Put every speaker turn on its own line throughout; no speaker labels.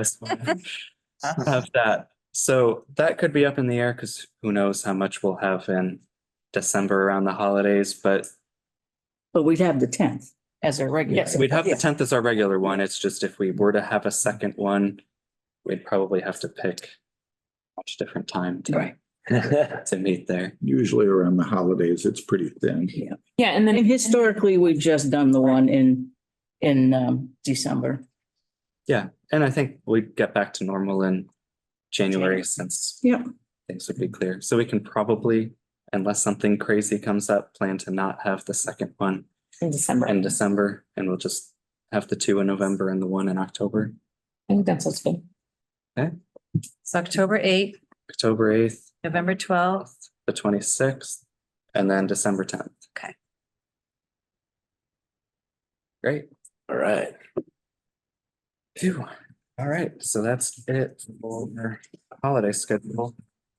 That's fine. Have that. So that could be up in the air because who knows how much we'll have in December around the holidays, but
But we'd have the tenth.
as our regular.
Yes.
we'd have the
Yeah.
tenth as our regular one. It's just if we were to have a second one, we'd probably have to pick a much different time to, to meet there.
Usually around the holidays, it's pretty thin.
Yeah, and
And
then
historically, we've just done the one in, in um, December.
And I think we'd get back to normal in January
January.
since
Yep.
things would be clear. So we can probably, unless something crazy comes up, plan to not have the second one
in December,
in
I
December, and we'll just have the two in November and the one in October,
think that's what's good.
It's October eighth,
October eighth,
November twelfth.
the twenty-sixth, and then December tenth.
Okay.
Great.
All right.
Phew. All right, so that's it for holiday schedule.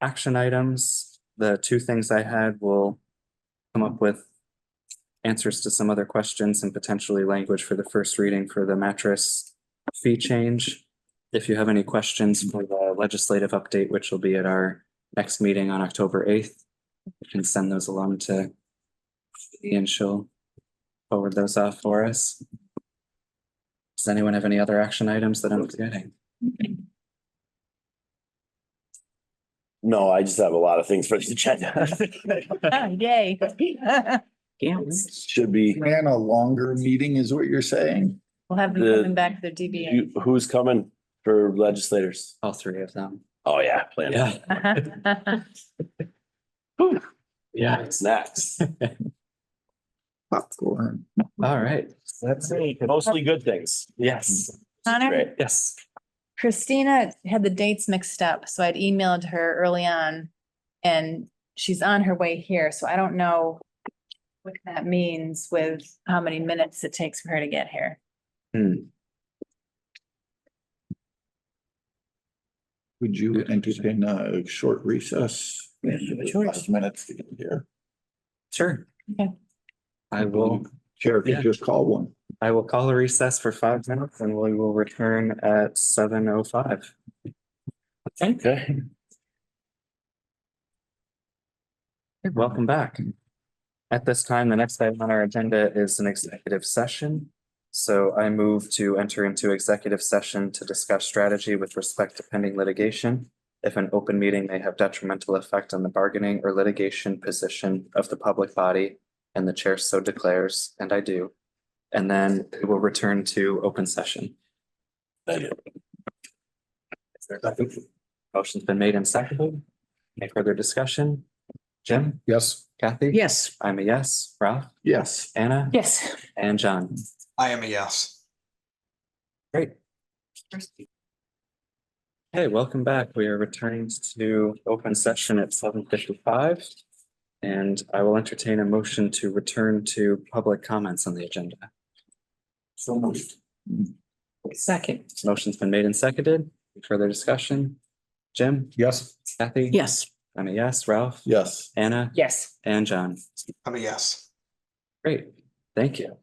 Action items, the two things I had will come up with answers to some other questions and potentially language for the first reading for the mattress fee change. If you have any questions for the legislative update, which will be at our next meeting on October eighth, you can send those along to and she'll forward those off for us. Does anyone have any other action items that I'm forgetting?
No, I just have a lot of things for the agenda.
Oh, Yay.
Yeah.
Should be,
Ran a longer meeting is what you're saying?
We'll have them
The-
coming back to their DBA.
you- who's coming for legislators?
All three of them.
Oh, yeah, plan. it.
Yeah, yeah.
It's next.
Popcorn.
All right. So That's it.
Mostly good things. Yes.
Connor,
Great.
Yes.
Christina had the dates mixed up, so I'd emailed her early on. And she's on her way here, so I don't know what that means with how many minutes it takes for her to get here.
Would you entertain a short recess?
Yeah, give a choice.
Five minutes to get here.
Sure.
Okay.
I will,
Sheriff, you
Yeah.
just call one.
I will call a recess for five minutes and we will return at seven oh five.
Okay.
Welcome back. At this time, the next item on our agenda is an executive session. So I move to enter into executive session to discuss strategy with respect to pending litigation. If an open meeting may have detrimental effect on the bargaining or litigation position of the public body and the chair so declares, and I do. And then we will return to open session.
Thank you.
Motion's been made and seconded. Any further discussion? Jim,
Yes.
Kathy?
Yes.
I'm a yes. Ralph,
Yes.
Anna?
Yes.
And John.
I am a yes.
Great. Hey, welcome back. We are returning to open session at seven fifty-five. And I will entertain a motion to return to public comments on the agenda. So moved.
Second.
Motion's been made and seconded. Further discussion? Jim?
Yes.
Kathy?
Yes.
I'm a yes. Ralph?
Yes.
Anna?
Yes.
And John.
I'm a yes.
Great, thank you.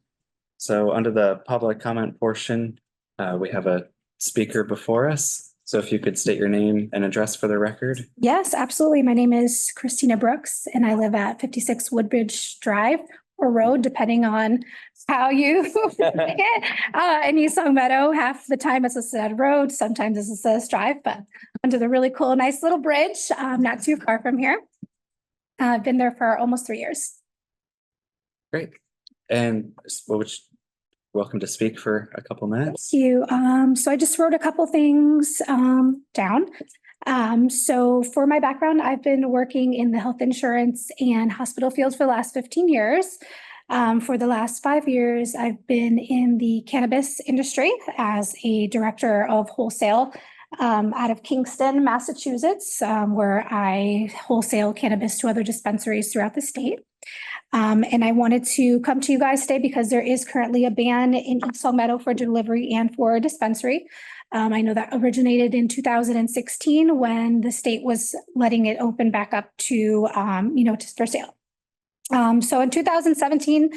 So under the public comment portion, uh, we have a speaker before us. So if you could state your name and address for the record.
Yes, absolutely. My name is Christina Brooks and I live at fifty-six Woodbridge Drive or Road, depending on how you pick it. Uh, in East Long Meadow, half the time it's listed as road, sometimes it's listed as drive, but under the really cool, nice little bridge, um, not too far from here. Uh, I've been there for almost three years.
Great. And s- well, which, welcome to speak for a couple minutes.
Thank you. Um, so I just wrote a couple things um, down. Um, so for my background, I've been working in the health insurance and hospital fields for the last 15 years. Um, for the last five years, I've been in the cannabis industry as a director of wholesale um, out of Kingston, Massachusetts, um, where I wholesale cannabis to other dispensaries throughout the state. Um, and I wanted to come to you guys today because there is currently a ban in East Long Meadow for delivery and for a dispensary. Um, I know that originated in two thousand and sixteen when the state was letting it open back up to, um, you know, just for sale. Um, so in two thousand seventeen,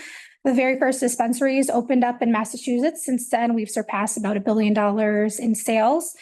The very first dispensaries opened up in Massachusetts. Since then, we've surpassed about a billion dollars in sales.